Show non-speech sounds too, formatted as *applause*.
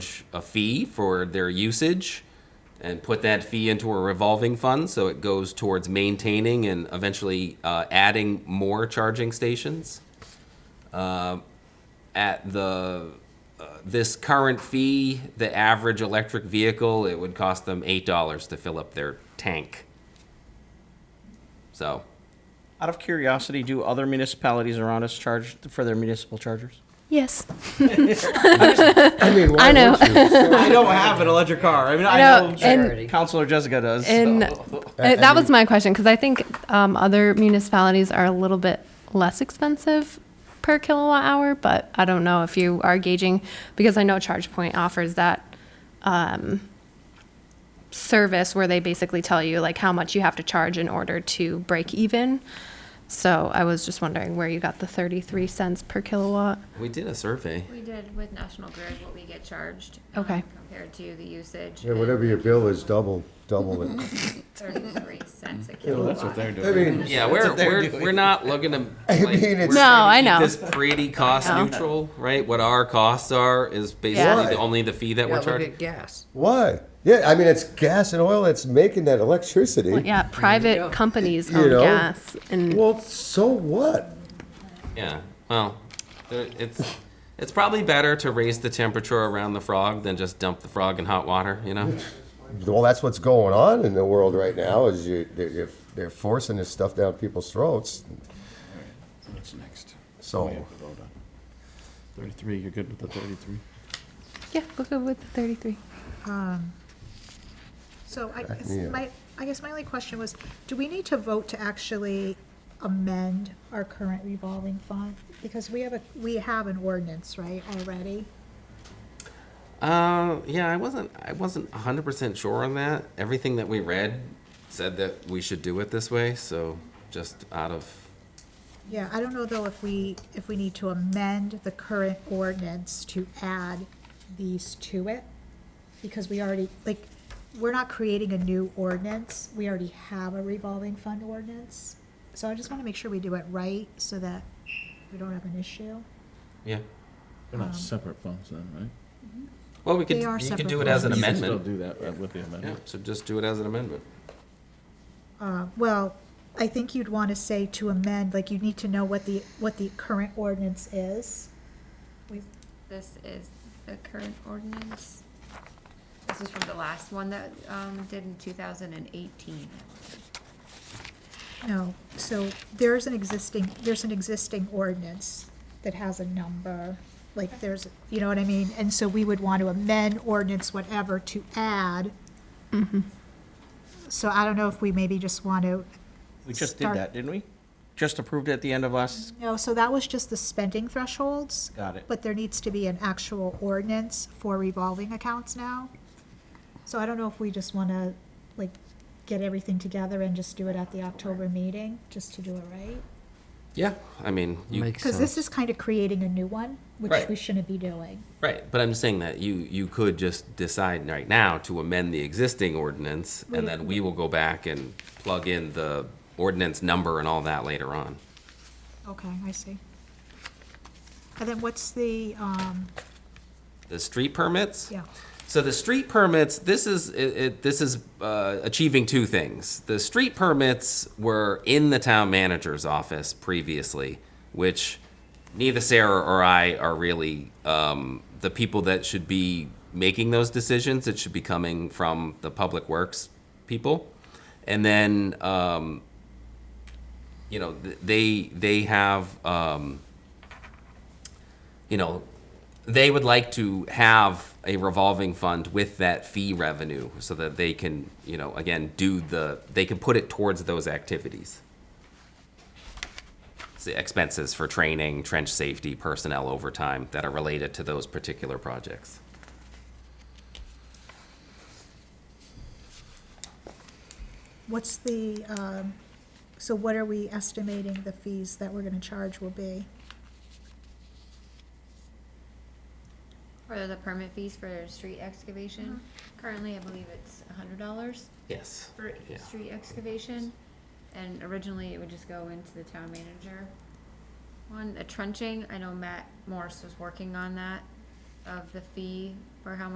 charge a fee for their usage and put that fee into a revolving fund so it goes towards maintaining and eventually uh, adding more charging stations. Uh, at the uh, this current fee, the average electric vehicle, it would cost them eight dollars to fill up their tank. So Out of curiosity, do other municipalities around us charge for their municipal chargers? Yes. I mean, why I know. would *laughs* you? I don't have an electric car. I mean, I know, know and- Councilor Jessica does. And so. Uh, that was my question because I think um, other municipalities are a little bit less expensive per kilowatt hour, but I don't know if you are gauging because I know ChargePoint offers that um, service where they basically tell you like how much you have to charge in order to break even. So I was just wondering where you got the 33 cents per kilowatt. we did a survey. We did with National Grid what we get charged. um, Okay. Compared to the usage. Yeah, Whatever your bill is, double, double it. Thirty-three *laughs* cents a kilowatt. I *laughs* mean, Yeah, we're they're we're, doing. we're not looking to. I mean, it's- we're trying to No, I keep know. This pretty cost know. neutral, right? What our costs are is basically Yeah. the, only the fee that Yeah, we're look charging. at gas. why? Yeah, I mean, it's gas and oil that's making that electricity. Well, yeah, private companies You own know, gas and Well, so what? Yeah. Well, there- it's it's probably better to raise the temperature around the frog than just dump the frog in hot water. You know. Well, that's what's going on in the world right now. Is you they're, they're- they're forcing this stuff down people's throats. What's next? So We have to vote on. Thirty-three, you're good with the thirty-three? yeah, we'll go with the 33. So I guess yeah. my, I guess my only question was, do we need to vote to actually amend our current revolving fund? Because we have a, we have an ordinance, right, already? Uh, yeah, I wasn't. I wasn't hundred percent sure on that. Everything that we read said that we should do it this way. So just out of Yeah, I don't know though if we, if we need to amend the current ordinance to add these to it. Because we already, like, we're not creating a new ordinance, we already have a revolving fund ordinance. So I just wanna make sure we do it right so that we don't have an issue. yeah. They're not separate funds then, right? Well, we could. They are Um, You could separate do it as an You can still amendment. do that uh, with the Yeah. amendment. So just do it as an amendment. Uh, Well, I think you'd want to say to amend, like you need to know what the, what the current ordinance is. We- This is the current ordinance. This is from the last one that, um, did in two thousand and eighteen. No, so there's an existing, there's an existing ordinance that has a number, like there's, you know what I mean? And so we would want to amend ordinance whatever to add. So I don't know if we maybe just want to, We just did Start- that, didn't we? Just approved it at the end of last, no, so that was just the spending thresholds. Got it. But there needs to be an actual ordinance for revolving accounts now. So I don't know if we just want to, like, get everything together and just do it at the October meeting, just to do it right. Yeah. I mean, you, Makes Because sense. this is kind of creating a new one, which Right. we shouldn't be doing. right. But I'm just saying that you you could just decide right now to amend the existing ordinance, and then we will go back and plug in the ordinance number and all that later on. Okay, I see. And then what's the, um, The street permits. yeah, So the street permits, this is it, it, this is uh, achieving two things. The street permits were in the town manager's office previously, which neither Sarah or I are really um, the people that should be making those decisions. It should be coming from the public works people, and then um, you know th- they they have. Um, you know, they would like to have a revolving fund with that fee revenue so that they can, you know, again, do the, they can put it towards those activities. It's the expenses for training, trench safety, personnel overtime that are related to those particular projects. what's the, um, so what are we estimating the fees that we're gonna charge will be? For the permit fees for street excavation, currently I believe it's a hundred dollars Yes. for Yeah. street excavation. And originally it would just go into the town manager. One, the trenching, I know Matt Morris was working on that, of the fee for how